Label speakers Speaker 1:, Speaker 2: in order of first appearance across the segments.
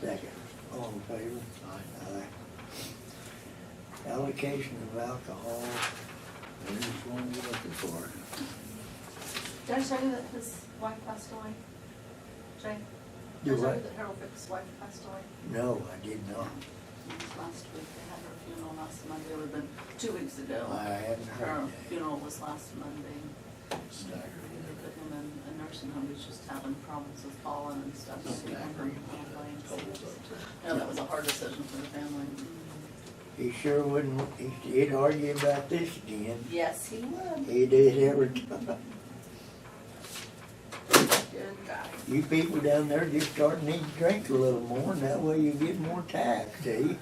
Speaker 1: Second, all in favor? Aye. Allocation of alcohol, there's one we're looking for.
Speaker 2: Did I tell you that his wife passed away? Jay?
Speaker 1: You
Speaker 2: Did I tell
Speaker 1: what?
Speaker 2: you that Harold Fick's wife passed away?
Speaker 1: No, I did not.
Speaker 2: It was last week, they had her funeral last Monday, it would've been two weeks ago.
Speaker 1: I haven't
Speaker 2: Her
Speaker 1: heard that.
Speaker 2: funeral was last Monday.
Speaker 1: Staggered.
Speaker 2: They put him in a nursing home, he's just having problems with falling and stuff. so he went from complaints. No, that was a hard decision for the family.
Speaker 1: He sure wouldn't, he- he'd argue about this again.
Speaker 2: Yes, he would.
Speaker 1: He did every time.
Speaker 2: Good guy.
Speaker 1: You people down there just starting to need to drink a little more, and that way you get more tax, see?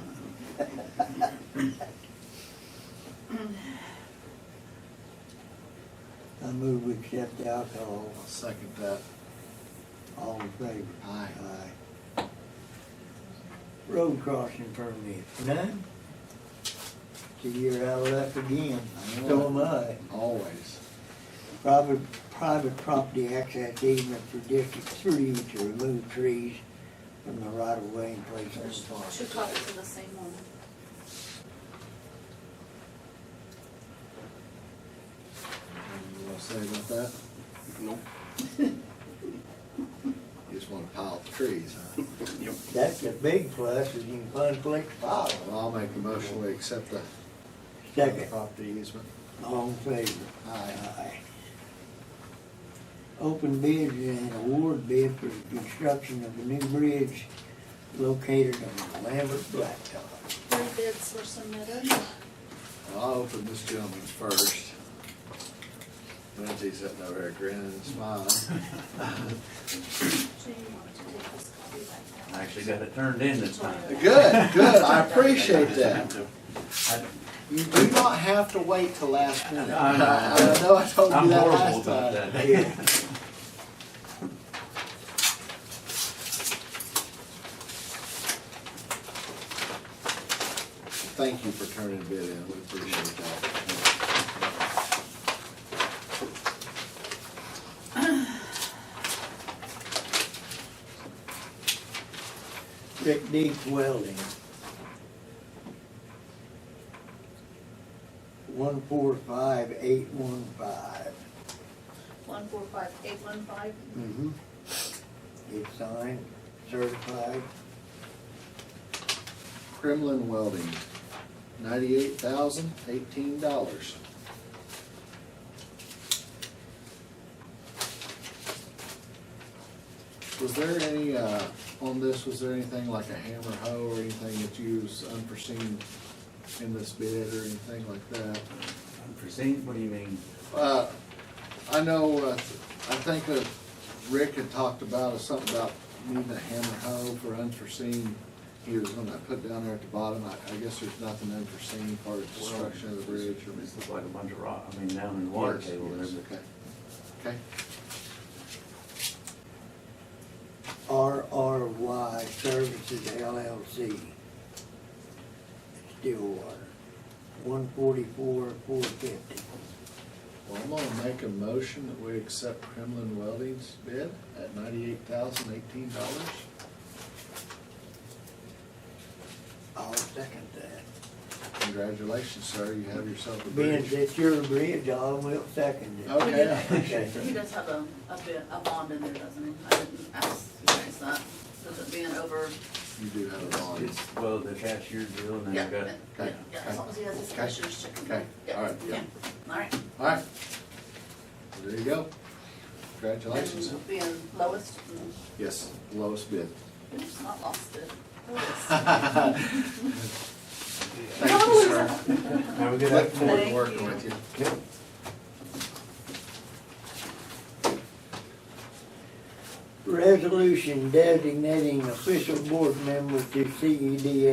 Speaker 1: I move we accept the alcohol,
Speaker 3: I'll second that.
Speaker 1: all in favor?
Speaker 3: Aye.
Speaker 1: Aye. Road crossing permit, none? See, you're out of luck again,
Speaker 3: I know
Speaker 1: so
Speaker 3: it.
Speaker 1: am I.
Speaker 3: Always.
Speaker 1: Private, private property access easement for District Three to remove trees from the right of way and place on
Speaker 2: There's
Speaker 1: the park.
Speaker 2: two copies of the same one.
Speaker 3: Anything you wanna say about that? Nope. You just wanna pile up the trees, huh?
Speaker 1: That's the big plus, is you can find place to file.
Speaker 3: Well, I'll make a motion, we accept the
Speaker 1: Second,
Speaker 3: property easement.
Speaker 1: all in favor?
Speaker 3: Aye.
Speaker 1: Open bids and award bid for the construction of a new bridge located on Lambert Blacktop.
Speaker 2: Three bids were submitted.
Speaker 3: Well, I'll open this gentleman's first. Lindsay's sitting over there grinning and smiling.
Speaker 2: Do you want to take this copy back
Speaker 4: I actually got it turned in this time.
Speaker 3: Good, good, I appreciate that.
Speaker 4: I-
Speaker 3: You do not have to wait till last minute.
Speaker 4: I know.
Speaker 3: I I know I told you
Speaker 4: I'm
Speaker 3: that
Speaker 4: horrible
Speaker 3: last
Speaker 4: about
Speaker 3: time.
Speaker 4: that.
Speaker 3: Thank you for turning it in, we appreciate that.
Speaker 1: Rick Deep Welding. One four five eight one five.
Speaker 2: One four five eight one five.
Speaker 1: Mm-hmm. It's signed, certified,
Speaker 3: Kremlin Welding, ninety-eight thousand, eighteen dollars. Was there any, uh, on this, was there anything like a hammer hoe or anything that you was unforeseen in this bid or anything like that?
Speaker 4: Unforeseen, what do you mean?
Speaker 3: Uh, I know, uh, I think that Rick had talked about, is something about needing a hammer hoe for unforeseen. He was gonna put down there at the bottom, I, I guess there's nothing unforeseen for the construction of the bridge or.
Speaker 4: This looks like a bunch of rock, I mean, down in the water
Speaker 3: Yes,
Speaker 4: table
Speaker 3: yes,
Speaker 4: there, but
Speaker 3: Okay, okay,
Speaker 1: RRY Services LLC. Stillwater, one forty-four, four fifty.
Speaker 3: well, I'm gonna make a motion that we accept Kremlin Welding's bid at ninety-eight thousand eighteen dollars.
Speaker 1: I'll second that.
Speaker 3: Congratulations, sir, you have yourself a
Speaker 1: Being
Speaker 3: bridge.
Speaker 1: that you're a bridge, I will second it.
Speaker 3: Okay, I appreciate
Speaker 2: He
Speaker 3: that.
Speaker 2: does have a, a bid, a bond in there, doesn't he? I didn't ask you guys that, with it being over,
Speaker 3: You do have a bond.
Speaker 4: it's, well, the cashier deal, and
Speaker 2: yeah,
Speaker 4: then I
Speaker 2: yeah, yeah,
Speaker 4: got,
Speaker 3: okay,
Speaker 2: yeah, as long as he has his
Speaker 3: okay,
Speaker 2: cashier's check. in
Speaker 3: okay,
Speaker 2: there.
Speaker 3: all right, yeah.
Speaker 2: All right,
Speaker 3: All right, there you go. Congratulations.
Speaker 2: and being lowest, mm,
Speaker 3: Yes, lowest bid.
Speaker 2: it's not lost it. Lowest.
Speaker 3: Thank you,
Speaker 2: Lowest.
Speaker 3: sir.
Speaker 4: have a good
Speaker 3: Look
Speaker 4: afternoon.
Speaker 3: forward
Speaker 2: Thank
Speaker 3: to working
Speaker 2: you.
Speaker 3: with you.
Speaker 1: Resolution designating official board member to E CEDA